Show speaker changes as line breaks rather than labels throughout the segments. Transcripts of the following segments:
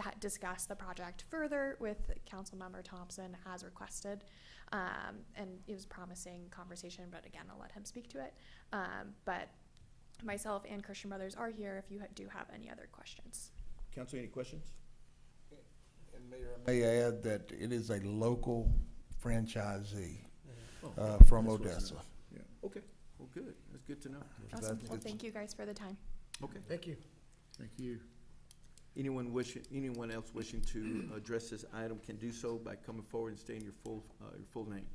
ha- discuss the project further with Councilmember Thompson as requested. Um, and it was promising conversation, but again, I'll let him speak to it. Um, but myself and Christian Brothers are here if you ha- do have any other questions.
Council, any questions?
And Mayor, I may add that it is a local franchisee
Oh,
uh, from
that's what's
Odessa.
nice. Yeah, okay, well, good, that's good to know.
Awesome.
That's-
Well, thank you guys for the time.
Okay,
Thank you.
thank you. Anyone wishing, anyone else wishing to address this item can do so by coming forward and stating your full, uh, your full name.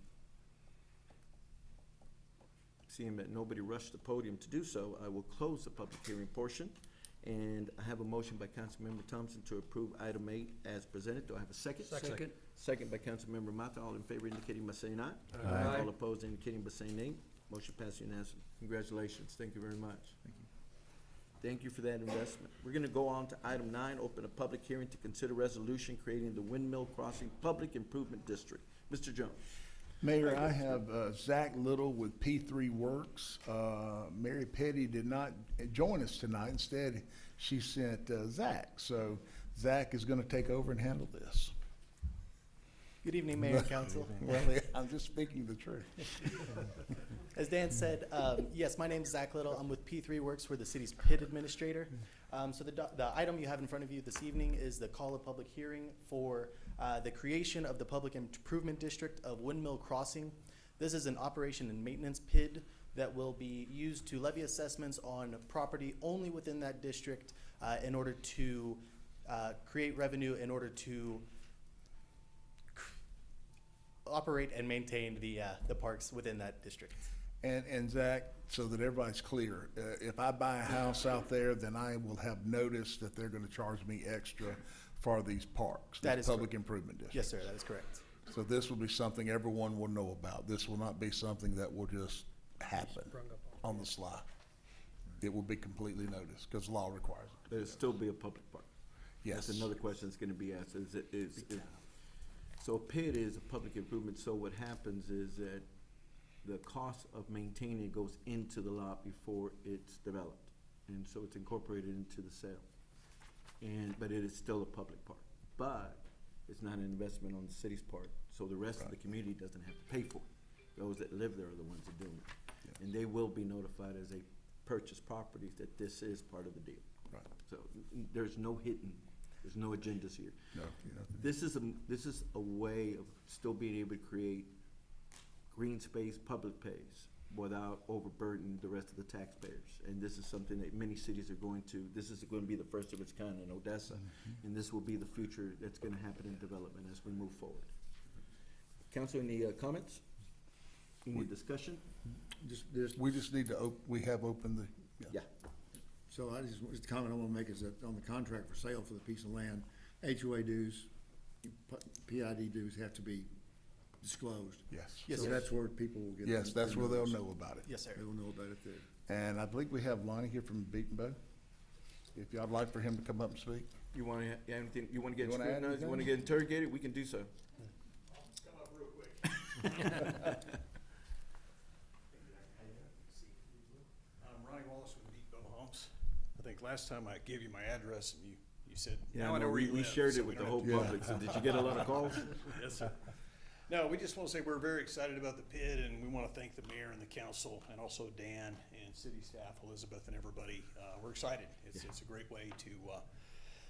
Seeing that nobody rushed the podium to do so, I will close the public hearing portion. And I have a motion by Councilmember Thompson to approve item eight as presented. Do I have a second?
Second.
Second by Councilmember Mata. All in favor indicating by saying aye.
Aye.
All opposed indicating by saying nay. Motion passed unanimously. Congratulations. Thank you very much. Thank you. Thank you for that investment. We're gonna go on to item nine, open a public hearing to consider resolution creating the Windmill Crossing Public Improvement District. Mr. Jones.
Mayor, I have uh, Zach Little with P3 Works. Uh, Mary Petty did not join us tonight. Instead, she sent uh, Zach. So Zach is going to take over and handle this.
Good evening, Mayor and Council.
Well, I'm just speaking the truth.
As Dan said, um, yes, my name's Zach Little. I'm with P3 Works. We're the city's PID administrator. Um, So the do- the item you have in front of you this evening is the call of public hearing for uh, the creation of the Public Improvement District of Windmill Crossing. This is an operation and maintenance PID that will be used to levy assessments on property only within that district uh, in order to uh, create revenue, in order to operate and maintain the, uh, the parks within that district.
And, and Zach, so that everybody's clear, uh, if I buy a house out there, then I will have notice that they're gonna charge me extra for these parks.
That
these
is correct.
Public improvement districts.
Yes, sir, that is correct.
So this will be something everyone will know about. This will not be something that will just happen on the sly. It will be completely noticed, cause law requires it.
There'll still be a public park.
Yes.
That's another question that's gonna be asked, is, it- is, is- so PID is a public improvement, so what happens is that the cost of maintaining it goes into the lot before it's developed, and so it's incorporated into the sale. And, but it is still a public park, but it's not an investment on the city's part, so the rest of the community doesn't have to pay for it. Those that live there are the ones that do it, and they will be notified as they purchase properties that this is part of the deal.
Right.
So n- n- there's no hidden, there's no agendas here.
No, you know,
This is a, m- this is a way of still being able to create green space, public space, without overburdening the rest of the taxpayers. And this is something that many cities are going to, this is gonna be the first of its kind in Odessa,
Mm-hmm.
and this will be the future that's gonna happen in development as we move forward. Council, any uh, comments? Any discussion?
Just, there's,
We just need to op- we have opened the,
Yeah,
so I just, just a comment I wanna make is that on the contract for sale for the piece of land, HOA dues, PID dues have to be disclosed.
yes.
Yes,
So
sir.
that's where people will get.
Yes,
their
that's where they'll
notice.
know about it.
Yes, sir.
They will know about it there.
And I believe we have Lonnie here from Beaton Bow. If y'all'd like for him to come up and speak.
you wanna, ha- yeah, anything, you wanna get
You wanna add
scrutinized, you wanna
anything?
get interrogated, we can do so.
I'm Um, Ronnie Wallace with Deep Bow Homes. I think last time I gave you my address and you, you said,
Yeah,
now I
no,
know where
we,
you
we
live.
shared
so
it
we
with the
don't
whole
have
public, so did you get a lot of calls?
to- Yes, sir. No, we just want to say we're very excited about the PID and we want to thank the mayor and the council and also Dan and city staff, Elizabeth and everybody. Uh, we're excited. It's, it's a great way to, uh,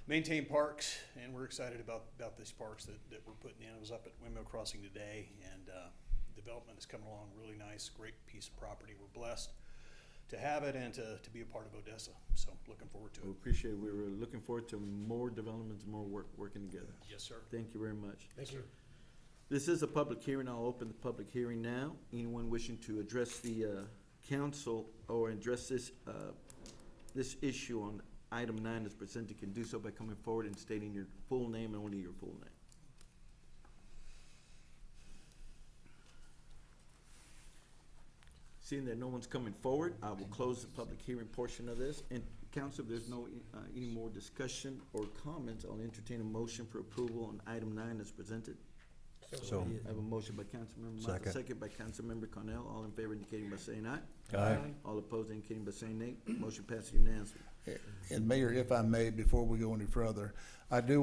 maintain parks and we're excited about, about these parks that, that we're putting in. I was up at Windmill Crossing today and, uh, development is coming along really nice, great piece of property. We're blessed to have it and to, to be a part of Odessa. So looking forward to
We
it.
appreciate, we were looking forward to more developments, more work, working together.
Yes, sir.
Thank you very much.
Thank you.
This is a public hearing, I'll open the public hearing now. Anyone wishing to address the, uh, council or address this, uh, this issue on item nine as presented can do so by coming forward and stating your full name and only your full name. Seeing that no one's coming forward, I will close the public hearing portion of this. And council, if there's no, uh, any more discussion or comments, I'll entertain a motion for approval on item nine as presented.
So.
I have a motion by Councilmember
Second.
Mata, second by Councilmember Cornell. All in favor indicating by saying aye.
Aye.
All opposed indicating by saying nay. Motion passes unanimously.
And Mayor, if I may, before we go any further, I do